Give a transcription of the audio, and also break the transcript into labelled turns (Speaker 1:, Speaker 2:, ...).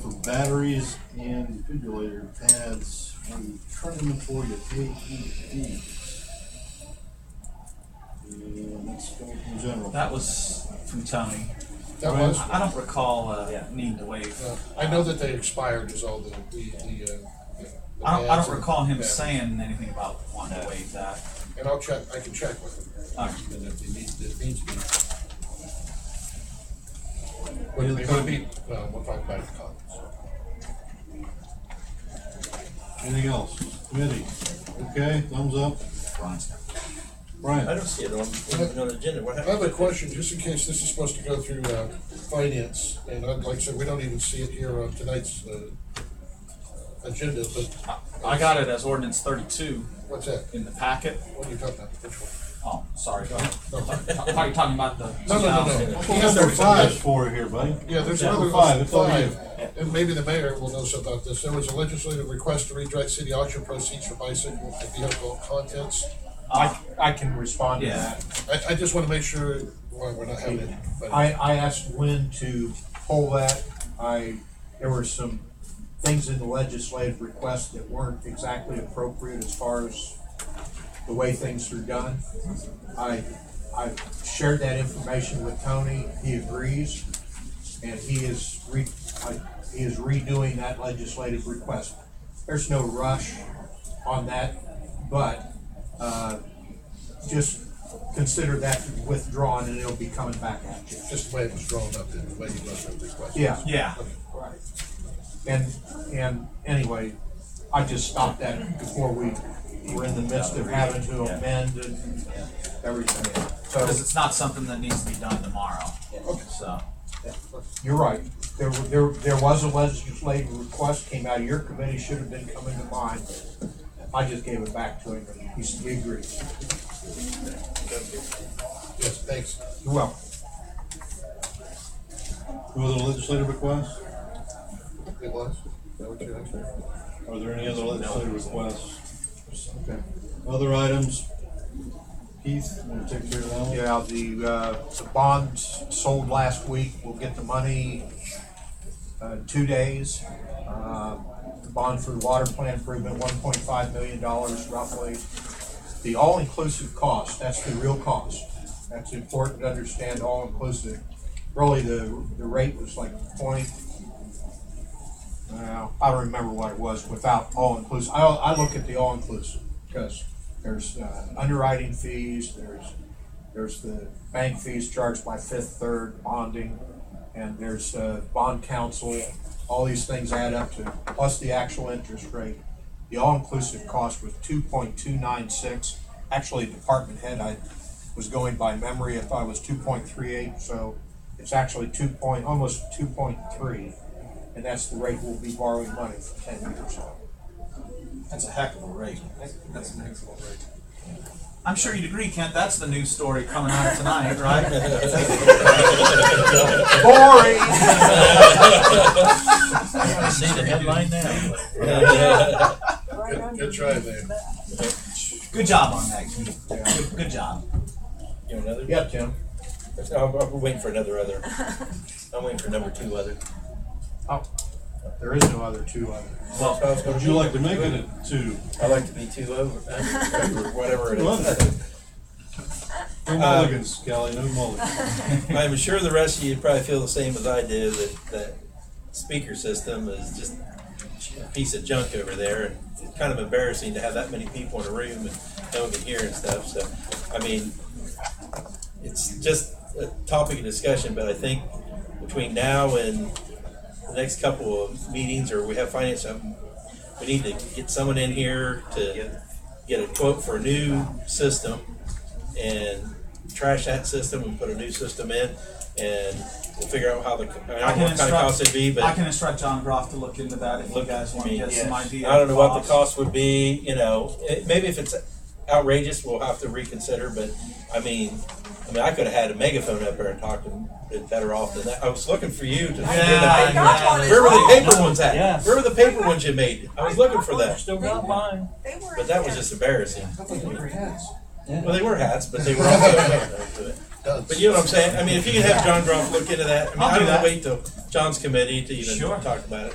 Speaker 1: batteries and defibrillator pads from current inventory of AEDs. And let's go in general.
Speaker 2: That was from Tony.
Speaker 3: That was,
Speaker 2: I I don't recall uh, needing to waive.
Speaker 3: uh, I know that they expired is all the, the, the, uh. the
Speaker 2: I don't, I
Speaker 3: ads
Speaker 2: don't
Speaker 3: and-
Speaker 2: recall him
Speaker 3: yeah.
Speaker 2: saying anything about wanting to waive that.
Speaker 3: And I'll check, I can check with them.
Speaker 2: Uh,
Speaker 3: And if they need, if needs be. But it could be, well, we'll talk about it in comments.
Speaker 1: Anything else? Committee, okay, thumbs up,
Speaker 2: Brian's got-
Speaker 4: I
Speaker 1: Brian,
Speaker 4: don't see it on, on the agenda, what
Speaker 3: I have
Speaker 4: happened?
Speaker 3: a question, just in case this is supposed to go through, uh, finance, and I'd like to say, we don't even see it here on tonight's, uh, agenda, but
Speaker 2: I got it as ordinance thirty-two
Speaker 3: what's that?
Speaker 2: in the packet.
Speaker 3: What are you talking about? Which one?
Speaker 2: Oh, sorry. I
Speaker 3: No.
Speaker 2: thought you were talking about the
Speaker 3: No, no, no,
Speaker 2: 2000.
Speaker 3: no.
Speaker 1: we got number five for here, buddy.
Speaker 3: Yeah, there's
Speaker 1: Number
Speaker 3: another
Speaker 1: five,
Speaker 3: five,
Speaker 1: it's all you.
Speaker 3: five, and maybe the mayor will know something about this. There was a legislative request to redirect city auction proceeds for bicycle and vehicle contents.
Speaker 2: Uh,
Speaker 5: I, I can respond to
Speaker 2: Yeah.
Speaker 5: that.
Speaker 3: I, I just wanna make sure, well, we're not having it, but
Speaker 5: I, I asked Lynn to pull that. I, there were some things in the legislative request that weren't exactly appropriate as far as the way things are done. I, I shared that information with Tony. He agrees. And he is re, I, he is redoing that legislative request. There's no rush on that, but, uh, just consider that withdrawn and it'll be coming back at you.
Speaker 3: just the way it was drawn up, and the way you must have requested.
Speaker 5: Yeah,
Speaker 2: Yeah,
Speaker 5: right. And, and anyway, I just stopped that before we were in the midst of having to amend and everything.
Speaker 2: because
Speaker 5: So,
Speaker 2: it's not something that needs to be done tomorrow.
Speaker 3: Okay.
Speaker 2: So,
Speaker 5: you're right, there, were- there, there was a legislative request came out of your committee, should have been coming to mine. I just gave it back to him, and he s- he agrees.
Speaker 3: Yes, thanks.
Speaker 5: You're welcome.
Speaker 1: Who was the legislative request?
Speaker 3: It was. Is that what you asked?
Speaker 1: Are there any other legislative requests?
Speaker 5: Okay.
Speaker 1: Other items? Keith, wanna take care of that one?
Speaker 5: Yeah, the, uh, the bonds sold last week, we'll get the money, uh, two days. Uh, The bond for the water plant improvement, one point five million dollars roughly. The all-inclusive cost, that's the real cost. That's important to understand, all-inclusive. Really, the, the rate was like point, well, I don't remember what it was without all-inclusive. I, I look at the all-inclusive because there's, uh, underwriting fees, there's there's the bank fees charged by Fifth Third bonding, and there's uh, bond counsel. All these things add up to, plus the actual interest rate. The all-inclusive cost was two point two nine six. Actually, department head, I was going by memory, I thought it was two point three eight, so it's actually two point, almost two point three. And that's the rate we'll be borrowing money for ten years.
Speaker 4: That's a heck of a rate.
Speaker 2: I'm sure you'd agree, Kent, that's the news story coming out tonight, right?
Speaker 5: Boring!
Speaker 4: I see the headline now.
Speaker 3: Good, good try there.
Speaker 2: Good job on that, Keith. Good- Good job.
Speaker 4: You know, another?
Speaker 5: Yeah, Tim,
Speaker 4: I'm, I'm waiting for another other. I'm waiting for number two other.
Speaker 5: there is no other two other.
Speaker 4: Well,
Speaker 1: Would you like to make it a two?
Speaker 4: I like to be two over, over whatever it
Speaker 1: Wonderful.
Speaker 4: is.
Speaker 1: No mulligans, Kelly, no mulligans.
Speaker 4: I'm sure the rest of you probably feel the same as I do, that, that speaker system is just a piece of junk over there. and It's kind of embarrassing to have that many people in a room and no one can hear and stuff, so, I mean, it's just a topic of discussion, but I think between now and the next couple of meetings, or we have finance, um, we need to get someone in here to get a quote for a new system and trash that system and put a new system in, and we'll figure out how the, I mean, I don't know what kind of cost it'd be, but.
Speaker 2: I can instruct John Groff to look into that if you
Speaker 4: Look,
Speaker 2: guys want
Speaker 4: I
Speaker 2: to
Speaker 4: mean,
Speaker 2: get some
Speaker 4: yes.
Speaker 2: idea.
Speaker 4: I don't know what
Speaker 2: of
Speaker 4: the cost would be, you know, it, maybe if it's outrageous, we'll have to reconsider, but, I mean, I mean, I could've had a megaphone up there and talked and been better off than that, I was looking for you to.
Speaker 2: Yeah, I got one.
Speaker 4: Where were the paper ones at?
Speaker 6: Yes.
Speaker 4: Where were the paper ones you made? I was looking for that,
Speaker 6: Still got mine.
Speaker 7: They were.
Speaker 4: but that was just embarrassing.
Speaker 3: I thought you were hands.
Speaker 4: Well, they were hats, but they were also.
Speaker 3: Done.
Speaker 4: But you know what I'm saying? I mean, if you could have John Grumpf look into that, I mean,
Speaker 2: I'll
Speaker 4: I
Speaker 2: do
Speaker 4: don't wanna
Speaker 2: that.
Speaker 4: wait till John's committee to even
Speaker 2: Sure.
Speaker 4: talk about it.